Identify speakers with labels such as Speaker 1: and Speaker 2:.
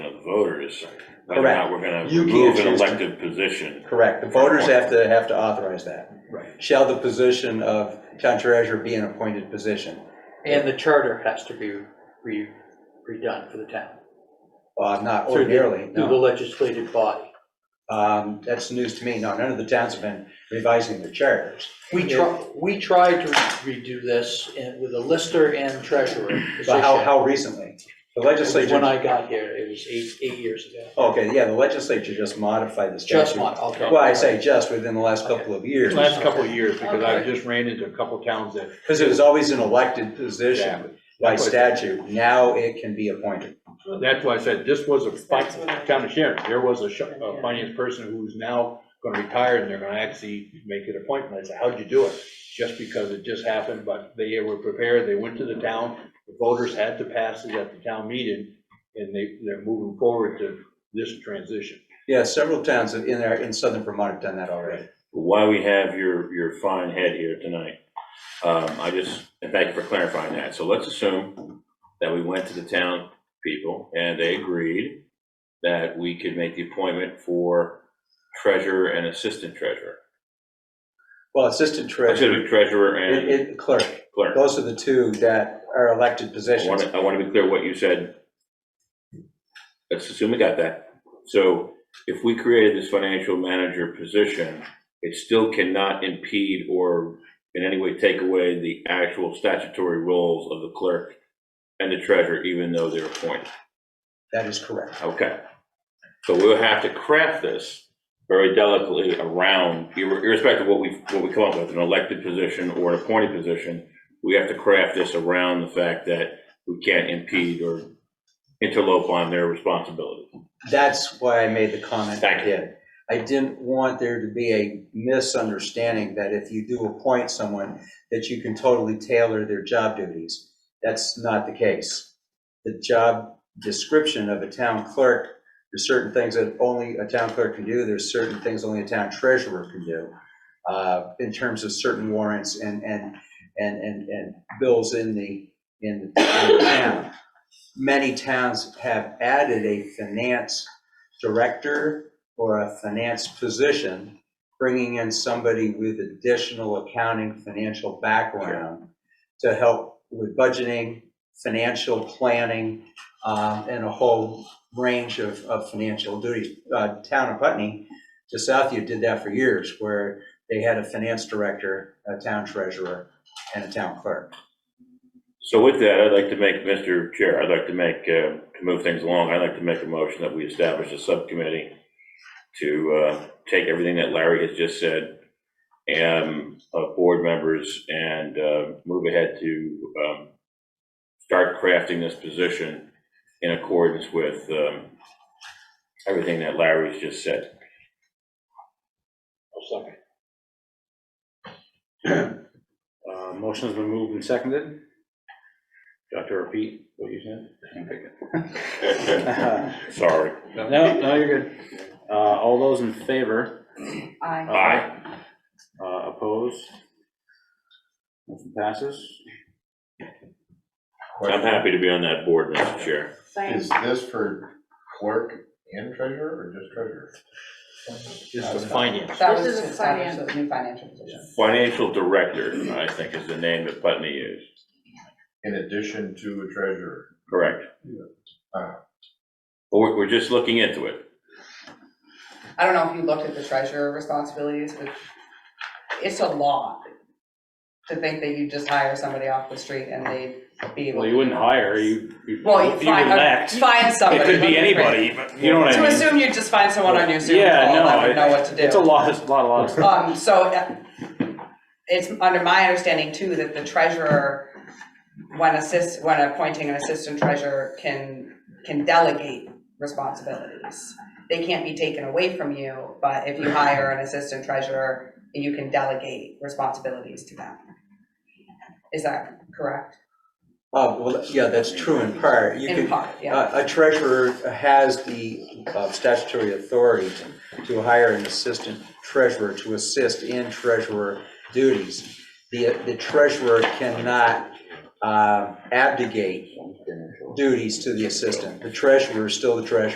Speaker 1: voters, whether or not we're gonna
Speaker 2: Correct. You can't
Speaker 1: remove an
Speaker 2: choose to-
Speaker 1: elected position.
Speaker 2: Correct, the voters have to, have to authorize that.
Speaker 3: Right.
Speaker 2: Shall the position of town treasurer be an appointed position?
Speaker 3: And the charter has to be re, redone for the town.
Speaker 2: Uh, not
Speaker 3: Through the-
Speaker 2: ordinarily,
Speaker 3: Through the
Speaker 2: no.
Speaker 3: legislative body.
Speaker 2: Um, that's news to me, no, none of the towns have been revising their charters.
Speaker 3: We try, we tried to redo this and- with a lister and treasurer position.
Speaker 2: But how, how recently? The legislature.
Speaker 3: When I got here, it was eight, eight years ago.
Speaker 2: Okay, yeah, the legislature just modified the statute.
Speaker 3: Just one, okay.
Speaker 2: Well, I say just within the last couple of years,
Speaker 4: Last couple of years, because I've just ran into a couple towns that.
Speaker 2: because it was always an elected position
Speaker 4: Exactly.
Speaker 2: by statute. Now it can be appointed.
Speaker 4: That's why I said this was a, fi-
Speaker 5: That's what I-
Speaker 4: town of Sharon, there was a sh- a finance person who's now gonna retire and they're gonna actually make an appointment. I said, how'd you do it? Just because it just happened, but they were prepared, they went to the town, the voters had to pass it at the town meeting, and they, they're moving forward to this transition.
Speaker 2: Yeah, several towns in there, in southern Vermont have done that already.
Speaker 1: Why we have your, your fine head here tonight, um, I just, and thank you for clarifying that. So let's assume that we went to the town people and they agreed that we could make the appointment for treasurer and assistant treasurer.
Speaker 2: Well, assistant
Speaker 1: I should
Speaker 2: treasurer,
Speaker 1: be treasurer
Speaker 2: it-
Speaker 1: and
Speaker 2: it- clerk,
Speaker 1: clerk.
Speaker 2: those are the two that are elected
Speaker 1: I want
Speaker 2: positions.
Speaker 1: to, I want to be clear what you said. Let's assume we got that. So if we created this financial manager position, it still cannot impede or in any way take away the actual statutory roles of the clerk and the treasurer, even though they're appointed.
Speaker 2: That is correct.
Speaker 1: Okay. So we'll have to craft this very delicately around, ir- irrespective of what we, what we come up with, an elected position or an appointed position, we have to craft this around the fact that we can't impede or interlope on their responsibility.
Speaker 2: That's why I made the comment I
Speaker 1: Thank you.
Speaker 2: did. I didn't want there to be a misunderstanding that if you do appoint someone, that you can totally tailor their job duties. That's not the case. The job description of a town clerk, there's certain things that only a town clerk can do, there's certain things only a town treasurer can do, uh, in terms of certain warrants and, and, and, and, and bills in the, in in the town many towns have added a finance director or a finance position, bringing in somebody with additional accounting, financial background to help with budgeting, financial planning, um, and a whole range of, of financial duties. Uh, Town of Putney, to Southview, did that for years, where they had a finance director, a town treasurer, and a town clerk.
Speaker 1: So with that, I'd like to make, Mr. Chair, I'd like to make, uh, to move things along, I'd like to make a motion that we establish a subcommittee to uh, take everything that Larry has just said, um, of board members, and uh, move ahead to um, start crafting this position in accordance with um, everything that Larry's just said.
Speaker 4: I'll second.
Speaker 6: Uh, Motion's been moved and seconded. Do I have to repeat what you said?
Speaker 1: Sorry.
Speaker 6: No, no, you're good. Uh, All those in favor?
Speaker 5: Aye.
Speaker 1: Aye.
Speaker 6: Uh, Opposed? Motion passes.
Speaker 1: I'm happy to be on that board, Mr. Chair.
Speaker 5: Same.
Speaker 7: Is this for clerk and treasurer or just treasurer?
Speaker 4: Just the finance.
Speaker 8: That was
Speaker 5: This is
Speaker 8: to
Speaker 5: a
Speaker 8: establish
Speaker 5: finance-
Speaker 8: a new financial position.
Speaker 1: Financial director, I think, is the name that Putney used.
Speaker 7: In addition to a treasurer?
Speaker 1: Correct.
Speaker 7: Uh,
Speaker 1: But we're, we're just looking into it.
Speaker 8: I don't know if you looked at the treasurer responsibilities, but it's a lot to think that you just hire somebody off the street and they'd be able.
Speaker 6: Well,
Speaker 8: to
Speaker 6: you wouldn't
Speaker 8: do it.
Speaker 6: hire, you, you you
Speaker 8: Well, you find,
Speaker 6: elect.
Speaker 8: find somebody.
Speaker 6: It could be
Speaker 8: but-
Speaker 6: anybody, but you know what
Speaker 8: To
Speaker 6: I mean?
Speaker 8: assume you just find someone on your Zoom call
Speaker 6: Yeah, no,
Speaker 8: that would know what to do.
Speaker 6: It's a lot, it's a lot, a lot of stuff.
Speaker 8: Um, so uh, it's under my understanding too, that the treasurer, when assist, when appointing an assistant treasurer can, can delegate responsibilities. They can't be taken away from you, but if you hire an assistant treasurer, you can delegate responsibilities to them. Is that correct?
Speaker 2: Uh, well, yeah, that's true in part. You
Speaker 8: In
Speaker 2: could- uh,
Speaker 8: part, yeah.
Speaker 2: A a treasurer has the uh, statutory authority to hire an assistant treasurer to assist in treasurer duties. The the treasurer cannot uh, abdicate duties to the assistant. The treasurer is still the treasurer.